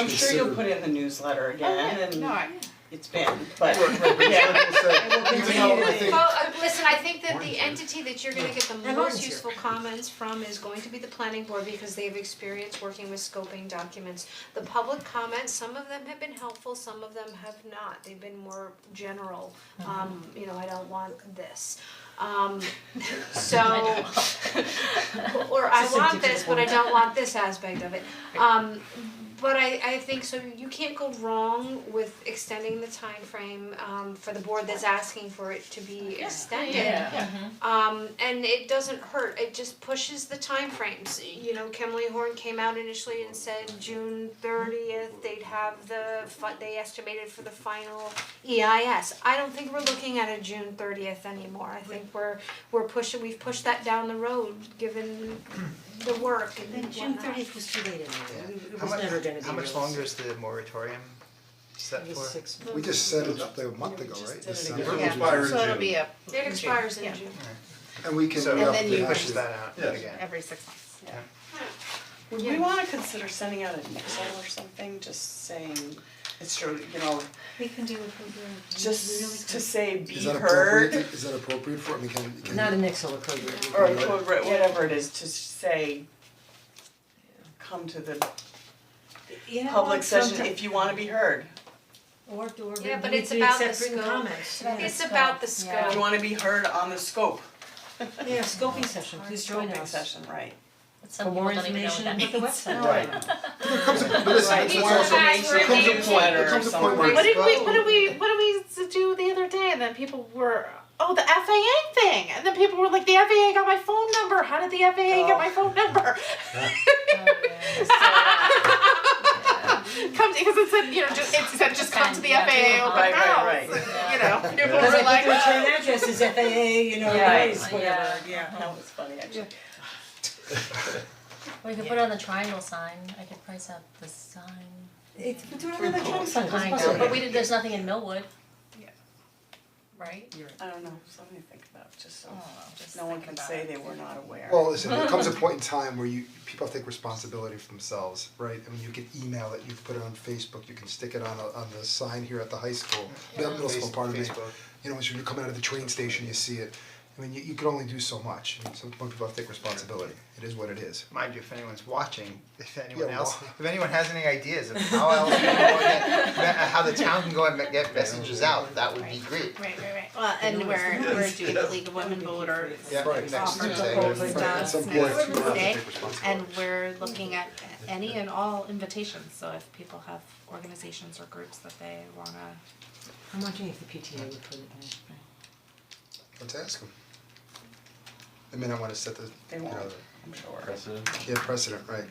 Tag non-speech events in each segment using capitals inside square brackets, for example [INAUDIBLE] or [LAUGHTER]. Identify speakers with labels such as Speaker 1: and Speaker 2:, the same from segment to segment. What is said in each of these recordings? Speaker 1: I'm sure you'll put it in the newsletter again
Speaker 2: No,
Speaker 1: and
Speaker 2: I,
Speaker 1: it's been, but
Speaker 3: Like
Speaker 1: [LAUGHS] yeah,
Speaker 3: I said, even though I think,
Speaker 4: Well, uh, listen, I think that the entity that you're gonna get the most useful comments from is going to be the planning board because they have experience working with scoping documents. The public comments, some of them have been helpful, some of them have not, they've been more general, um, you know, I don't want this. Um, so, [LAUGHS] or I want this, but I don't want this aspect of it. Um, but I, I think so you can't go wrong with extending the time frame um, for the board that's asking for it to be extended. Um, and it doesn't hurt, it just pushes the timeframes, you know, Kimley Horn came out initially and said June thirtieth, they'd have the fi- they estimated for the final EIS. I don't think we're looking at a June thirtieth anymore, I think we're, we're pushing, we've pushed that down the road, given the work and
Speaker 5: Then
Speaker 4: whatnot.
Speaker 5: June thirtieth was too late anyway, it
Speaker 6: How
Speaker 5: was
Speaker 6: much,
Speaker 5: never gonna be
Speaker 6: how much
Speaker 5: realistic.
Speaker 6: longer is the moratorium set
Speaker 5: It
Speaker 6: for?
Speaker 5: was six
Speaker 3: [LAUGHS]
Speaker 5: months.
Speaker 3: we just set it up there a month ago, right? This
Speaker 1: did it
Speaker 3: summer.
Speaker 1: again. Yeah.
Speaker 2: yeah, so it'll be up.
Speaker 4: It expires in June.
Speaker 3: And we can
Speaker 6: So
Speaker 3: re-up
Speaker 2: then
Speaker 3: the
Speaker 2: you-
Speaker 6: pushes
Speaker 3: issue.
Speaker 6: that out
Speaker 3: Yes.
Speaker 6: again.
Speaker 2: Every six months, yeah.
Speaker 1: would we wanna consider sending out a newsletter or something, just saying, it's true, you know,
Speaker 5: We can do it for
Speaker 1: just to say be
Speaker 3: Is that appropriate,
Speaker 1: heard
Speaker 3: is that appropriate for, I mean, can, can.
Speaker 5: Not an Excel program.
Speaker 1: or co- whatever it is, to say come to the
Speaker 5: You know,
Speaker 1: public session
Speaker 5: sometimes-
Speaker 1: if you wanna be heard.
Speaker 5: Or or
Speaker 4: Yeah, but
Speaker 5: we
Speaker 4: it's
Speaker 5: could
Speaker 4: about the
Speaker 5: accept written
Speaker 4: scope.
Speaker 5: comments, yeah.
Speaker 4: It's about the
Speaker 1: You
Speaker 4: scope.
Speaker 1: wanna be heard on the scope,
Speaker 5: Yeah, scoping session, please
Speaker 7: Oh,
Speaker 5: join
Speaker 1: scoping
Speaker 5: us.
Speaker 1: session, right?
Speaker 5: For more information, look at the website.
Speaker 3: But listen,
Speaker 1: Right.
Speaker 3: it's
Speaker 4: These
Speaker 3: it's
Speaker 4: are
Speaker 3: also, there comes
Speaker 4: facts we're
Speaker 3: a point,
Speaker 1: getting
Speaker 3: there comes a point
Speaker 1: or
Speaker 3: where it's
Speaker 2: What did
Speaker 3: about.
Speaker 2: we, what did we, what did we do the other day, and then people were, oh, the FAA thing, and then people were like, the FAA got my phone number, how did the FAA get my phone number? Come, because it said, you know, just, it said just come to the FAA open
Speaker 1: Right,
Speaker 2: house,
Speaker 1: right,
Speaker 2: and, you know, people
Speaker 5: Cause
Speaker 2: were
Speaker 5: I
Speaker 2: like,
Speaker 5: think return address is FAA, you know,
Speaker 1: Yeah.
Speaker 5: it is whatever, yeah.
Speaker 1: That was funny, actually.
Speaker 7: Or you could put it on the triangle sign, I could price out the sign.
Speaker 5: It, we do it on electronic sign, it's
Speaker 7: I know,
Speaker 5: possible.
Speaker 7: but we did, there's nothing in Millwood.
Speaker 2: Yeah.
Speaker 7: Right?
Speaker 1: I don't know, something to think about, just so
Speaker 7: Oh, just
Speaker 1: no one
Speaker 7: think
Speaker 1: can
Speaker 7: about
Speaker 1: say
Speaker 7: it.
Speaker 1: they were not aware.
Speaker 3: Well, listen, there comes a point in time where you, people take responsibility for themselves, right? I mean, you can email it, you can put it on Facebook, you can stick it on a, on the sign here at the high school, the middle school,
Speaker 6: Face-
Speaker 3: pardon me.
Speaker 6: Facebook.
Speaker 3: You know, as you're coming out of the train station, you see it, I mean, you, you can only do so much, and some people have to take responsibility, it is what it is.
Speaker 6: Mind you, if anyone's watching, if anyone
Speaker 3: Yeah,
Speaker 6: else,
Speaker 3: well-
Speaker 6: if anyone has any ideas of how else we can go and get, how the town can go and get messages out, that would be great.
Speaker 2: Right, right, right, well, and we're, we're doing the League of Women Voters
Speaker 6: Yeah, next Tuesday.
Speaker 3: Right, at some point, you have to
Speaker 2: Tuesday,
Speaker 3: take responsibility.
Speaker 2: and we're looking at any and all invitations, so if people have organizations or groups that they wanna
Speaker 5: I'm wondering if the PTA would put it in.
Speaker 3: Let's ask them. They may not wanna set the,
Speaker 1: They
Speaker 3: you know,
Speaker 1: won't,
Speaker 3: the-
Speaker 1: I'm sure.
Speaker 3: yeah, precedent, right,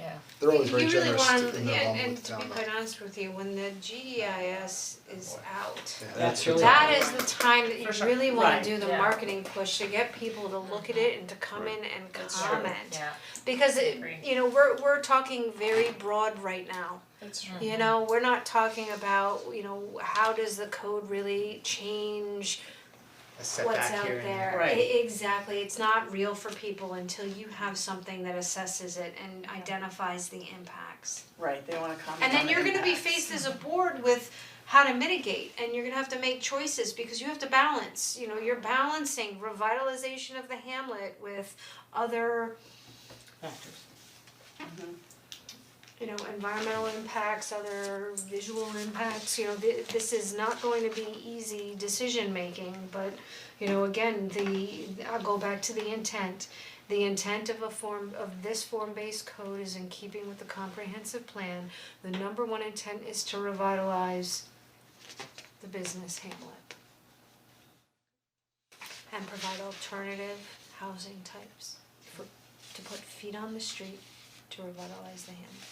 Speaker 7: Yeah.
Speaker 3: they're always very
Speaker 4: You really
Speaker 3: generous
Speaker 4: want,
Speaker 3: in
Speaker 4: yeah,
Speaker 3: their home
Speaker 4: and
Speaker 3: with
Speaker 4: to be
Speaker 3: down
Speaker 4: quite honest with you, when the GEIS is out,
Speaker 3: Yeah.
Speaker 1: That's really.
Speaker 4: that is the time that
Speaker 2: For
Speaker 4: you
Speaker 2: sure.
Speaker 4: really wanna
Speaker 1: Right.
Speaker 4: do the
Speaker 7: Yeah.
Speaker 4: marketing push to get people to look at it and to come in and
Speaker 7: true.
Speaker 4: comment.
Speaker 7: Yeah.
Speaker 4: Because it,
Speaker 7: Agree.
Speaker 4: you know, we're we're talking very broad right now.
Speaker 1: That's
Speaker 4: You know, we're not talking about, you know, how does the code really change
Speaker 6: A setback here and
Speaker 4: what's out there,
Speaker 1: Right.
Speaker 4: E- exactly, it's not real for people until you have something that assesses it and identifies the impacts.
Speaker 1: Right, they wanna comment
Speaker 4: And
Speaker 1: on
Speaker 4: then
Speaker 1: the
Speaker 4: you're gonna be
Speaker 1: impacts.
Speaker 4: faced as a board with how to mitigate, and you're gonna have to make choices, because you have to balance, you know, you're balancing revitalization of the hamlet with other,
Speaker 5: Factors.
Speaker 4: you know, environmental impacts, other visual impacts, you know, thi- this is not going to be easy decision making, but you know, again, the, I'll go back to the intent. The intent of a form, of this form-based code is in keeping with the comprehensive plan. The number one intent is to revitalize the business hamlet. And provide alternative housing types for, to put feet on the street to revitalize the hamlet.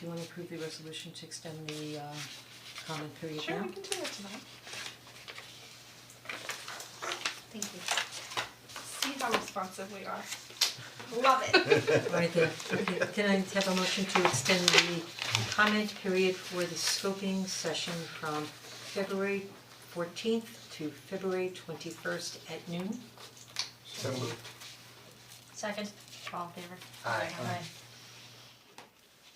Speaker 5: Do you wanna approve the resolution to extend the uh comment period now?
Speaker 2: Sure, we can do that tonight.
Speaker 4: Thank you.
Speaker 2: See how responsive we are. Love it.
Speaker 5: Right there, okay, can I have a motion to extend the comment period for the scoping session from February fourteenth to February twenty-first at noon?
Speaker 3: So moved.
Speaker 7: Second.
Speaker 2: All in favor?
Speaker 6: Aye.
Speaker 7: Aye.